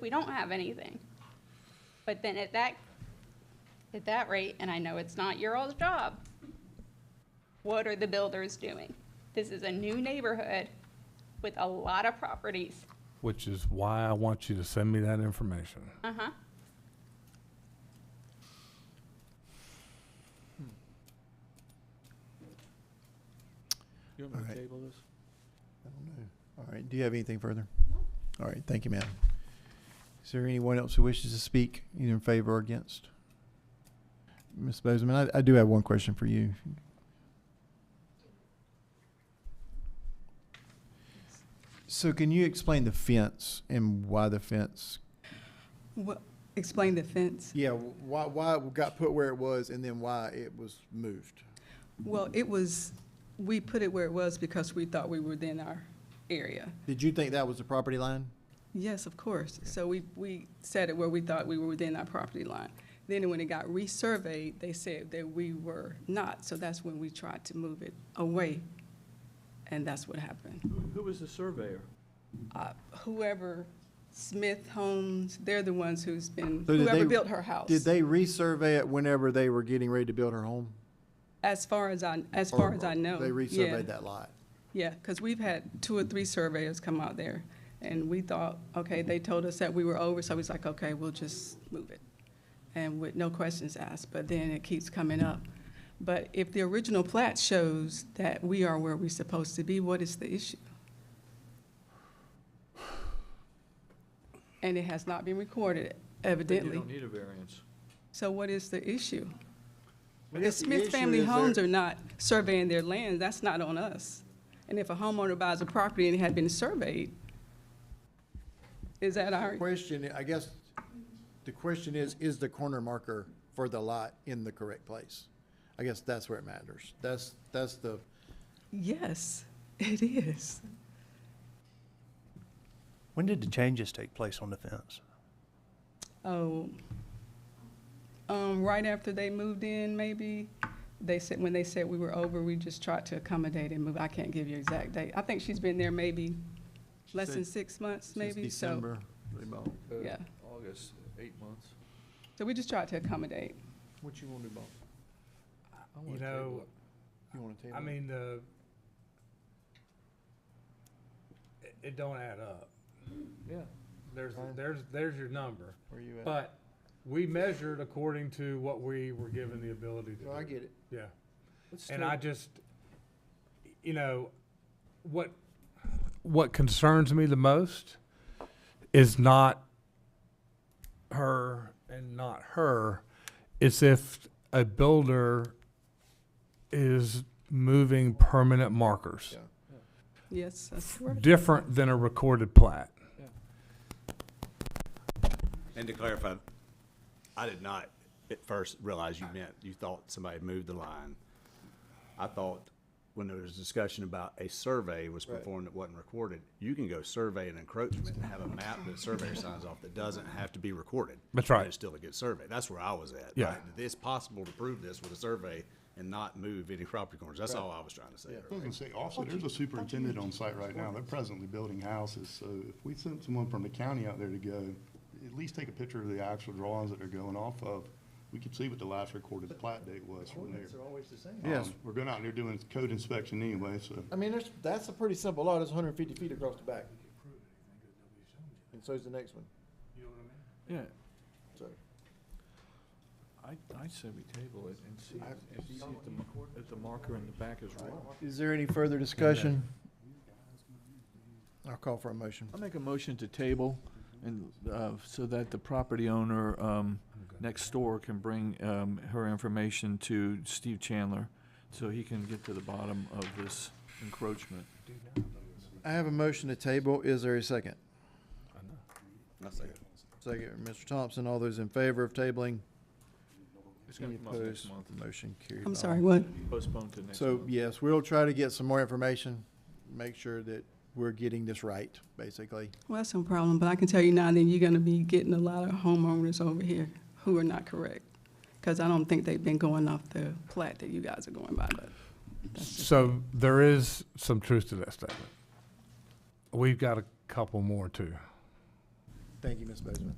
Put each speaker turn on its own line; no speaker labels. we don't have anything. But then at that, at that rate, and I know it's not your all's job, what are the builders doing? This is a new neighborhood with a lot of properties.
which is why I want you to send me that information.
Uh-huh.
You want me
Alright.
to table this?
I don't know. All right, do you have anything further? All right, thank you, ma'am. Is there anyone else who wishes to speak, either in favor or against? Ms. Bozeman, I, I do have one question for you. So can you explain the fence and why the fence?
What, explain the fence.
Yeah, why, why it got put where it was and then why it was moved?
Well, it was, we put it where it was because we thought we were within our area.
Did you think that was the property line?
Yes, of course. So we, we set it where we thought we were within our property line. Then when it got resurveyed, they said that we were not, so that's when we tried to move it away. And that's what happened.
Who- Who was the surveyor?
Uh, Whoever, Smith Homes, they're the ones who's been,
So did they-
whoever built her house.
Did they resurvey it whenever they were getting ready to build her home?
As far as I, as far as I know.
Oh, They
yeah.
resurveyed that lot.
Yeah, because we've had two or three surveyors come out there, and we thought, okay, they told us that we were over, so we was like, okay, we'll just move it, and with no questions asked, but then it keeps coming up. But if the original plat shows that we are where we're supposed to be, what is the issue? And it has not been recorded
Then You
evidently,
don't need a variance.
so what is the issue?
I
If
guess the
Smith
issue
Family
is there-
Homes are not surveying their land, that's not on us. And if a homeowner buys a property and it had been surveyed, is that our,
Question, I guess, the question is, is the corner marker for the lot in the correct place? I guess that's where it matters. That's, that's the,
yes, it is.
When did the changes take place on the fence?
Oh, um, right after they moved in, maybe, they said, when they said we were over, we just tried to accommodate and move. I can't give you an exact date. I think she's been there maybe less than six months,
since
maybe, so,
December. they bought.
Uh,
Yeah.
August, eight months.
so we just tried to accommodate.
What you want to do, Bob?
I wanna
You
table
know,
it.
You want to table?
I
it?
mean, the, it, it don't add up.
Yeah.
There's,
Fine.
there's, there's your number.
Where you at?
But we measured according to what we were given the ability to do.
No, I get it.
Yeah.
Let's
And I
table-
just, you know, what, what concerns me the most is not her and not her. It's if a builder is moving permanent markers,
Yeah.
Yes, that's correct.
different than a recorded plat.
And to clarify, I did not at first realize you meant, you thought somebody moved the line. I thought when there was discussion about a survey was
Right.
performed that wasn't recorded, you can go survey an encroachment and have a map that the surveyor signs off that doesn't have to be recorded.
That's right.
And It's still a good survey. That's where I was at.
Yeah.
right? It's possible to prove this with a survey and not move any property corners. That's all I was trying to say.
I was gonna say, also, there's a superintendent on site right now, they're presently building houses, so if we sent someone from the county out there to go, at least take a picture of the actual drawings that they're going off of, we could see what the last recorded plat date was from there.
Ordinance are always the same.
Yes.
Um, We're going out there doing code inspection anyway, so.
I mean, there's, that's a pretty simple lot, it's hundred and fifty feet across the back. And so's the next one,
Yeah,
so.
I, I'd say we table it and see, and see if the, mar- if the marker in the back is wrong.
Is there any further discussion? I'll call for a motion.
I'll make a motion to table and, uh, so that the property owner, um, next door can bring, um, her information to Steve Chandler so he can get to the bottom of this encroachment.
I have a motion to table, is there a second?
I say it.
Second, Mr. Thompson, all those in favor of tabling?
It's
Any
gonna come up next
opposed?
month.
Motion carried.
I'm
by
sorry,
all.
what?
Postpone to next
So,
month.
yes, we'll try to get some more information, make sure that we're getting this right, basically.
Well, that's no problem, but I can tell you now that you're gonna be getting a lot of homeowners over here who are not correct. Because I don't think they've been going off the plat that you guys are going by, but
So there is some truth to that statement. We've got a couple more too.
Thank you, Ms. Bozeman.